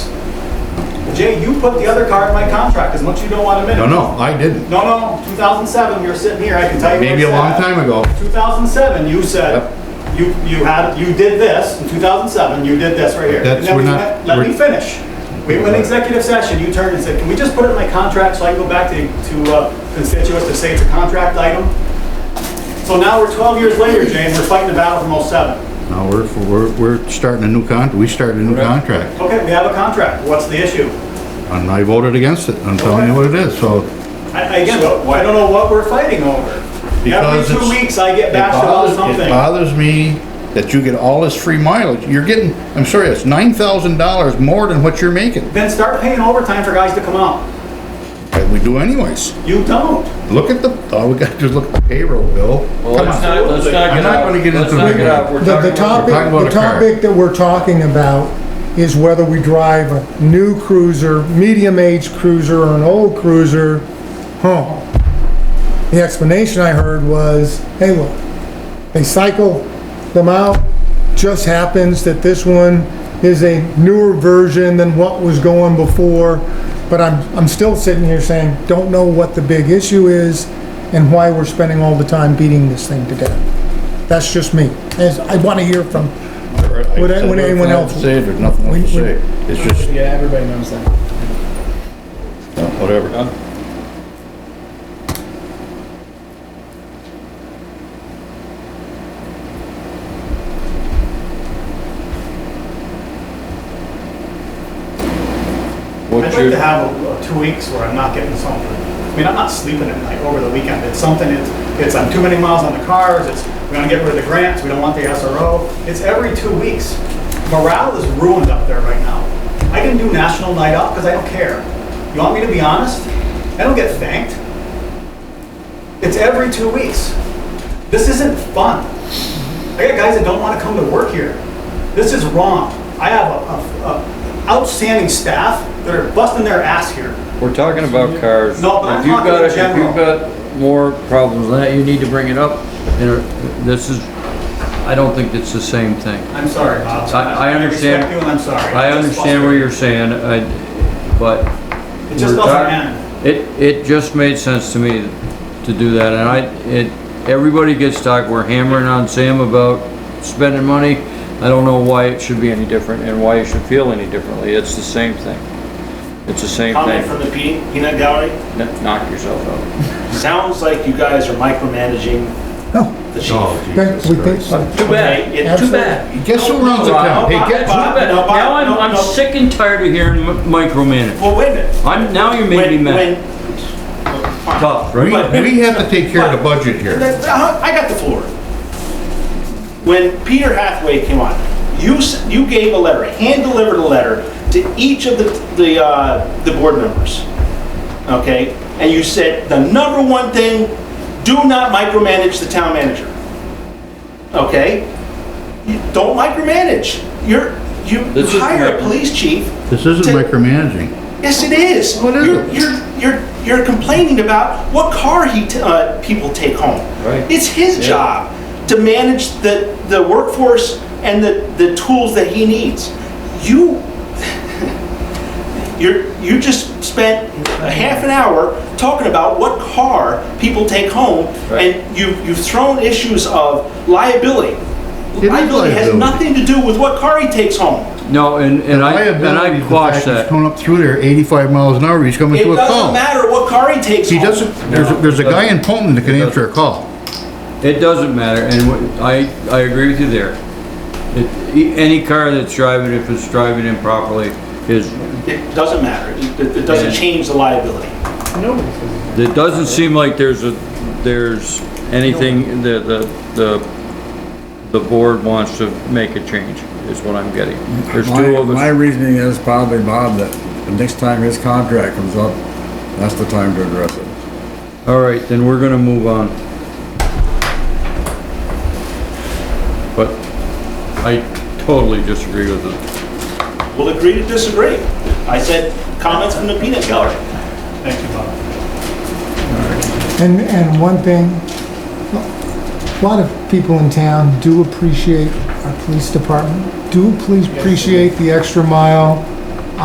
Jay, you put the other car in my contract as much as you don't want to No, admit it. no, I didn't. No, no, 2007, you're sitting here, I can tell you. Maybe a what's long said. time ago. 2007, you said, you, you had, you did this, in 2007, you did this right here. And That's- then we're we not- went- Let me we're- finish. We went executive session, you turned and said, can we just put it in my contract so I can go back to, to uh, constituents to say it's a contract item? So now we're 12 years later, Jay, and we're fighting the battle from '07. No, we're, we're, we're starting a new con, we started a new contract. Okay, we have a contract, what's the issue? And I voted against it. I'm telling you what it is, so. I, I- again, I don't know what we're fighting over. Every because two it's- weeks, I get it bashed about bothers- something. It bothers me that you get all this free mileage. You're getting, I'm sorry, it's nine thousand dollars more than what you're making, Then start paying overtime for guys to come out. that we do anyways. You don't. Look at the, all we got, just look at the payroll bill. Well, Come let's on. not, let's not I'm get not out. gonna get Let's into not the- get out. We're The, talking the about- topic, talking about the a car. topic that we're talking about is whether we drive a new cruiser, medium-aged cruiser, or an old cruiser home. The explanation I heard was, hey, look, they cycle them out, just happens that this one is a newer version than what was going before, but I'm, I'm still sitting here saying, don't know what the big issue is and why we're spending all the time beating this thing to death. That's just me. As- I want to hear from, I Would said anyone- nothing anyone I have else- to Say, there's nothing We- else to we- say. It's just, Yeah, everybody knows that. uh, whatever. I'd What's like your, to have a- a two weeks where I'm not getting something. I mean, I'm not sleeping at night over the weekend. It's something, it's, it's, I'm too many miles on the cars, it's, we gotta get rid of the grants, we don't want the SRO. It's every two weeks. Morale is ruined up there right now. I can do National Night Out because I don't care. You want me to be honest? I don't get thanked. It's every two weeks. This isn't fun. I got guys that don't want to come to work here. This is wrong. I have a, a- a outstanding staff that are busting their ass here. we're talking about cars. No, but I'm If you've talking got- in If general. you've got more problems than that, you need to bring it up. And uh, this is, I don't think it's the same thing. I'm sorry, Bob. I- I understand. respect you and I'm sorry. I It's just understand what you're saying, I, but. frustrating. It just we're doesn't talk- end. It, it just made sense to me to do that, and I, it, everybody gets talk, we're hammering on Sam about spending money. I don't know why it should be any different and why you should feel any differently, it's the same thing. It's the same Comment thing, from the pe- peanut gallery. Kn- knock yourself out. Sounds like you guys are micromanaging no. the chief. Oh, okay, Jesus we think- Christ. Too bad, It's too too bad. bad. Guess who runs the town? Hey, Too guess who? bad, No, Bob, now I'm, no, I'm no. sick and tired of hearing mi- micromanage. Well, wait a minute. I'm, now you're making me When, mad, when, tough. We, we have to take care of the budget here. That's- uh, I got the floor. When Peter Hathaway came on, you, s- you gave a letter, hand-delivered a letter to each of the, the, uh, the board members, okay? And you said, the number one thing, do not micromanage the town manager, okay? You Don't micromanage. You're, you This is hire a micro- police chief. This isn't to- micromanaging. Yes, it is. What is you're, it? You're, you're, you're complaining about what car he t- uh, people take home. Right. It's his Yeah. job to manage the, the workforce and the, the tools that he needs. You, you're, you just spent a half an hour talking about what car people take home, Right. and you've, you've thrown issues of liability. is Liability has liability. nothing to do with what car he takes home. No, and, and I, and Liability is I the quash fact he's that. Coming up through there eighty-five miles an hour, he's coming It to a doesn't call. matter what car he takes He home. doesn't, there's, a- there's a guy in Poland that can It answer a call. It doesn't matter, and what- I, I agree with you there. It- e- Any car that's driving, if it's driving improperly, is, It doesn't matter. It, it doesn't Yeah. change the liability. it doesn't seem like there's a, there's anything, the, the, the, the board wants to make a change, is what I'm getting. There's two My, of my us. reasoning is probably, Bob, that the next time his contract comes up, that's the time to address it. All right, then we're gonna move on. But I totally disagree with it. We'll agree to disagree. I said comments from the peanut gallery. Thank you, Bob. And, and one thing, a lot of people in town do appreciate our police department, do please appreciate the extra mile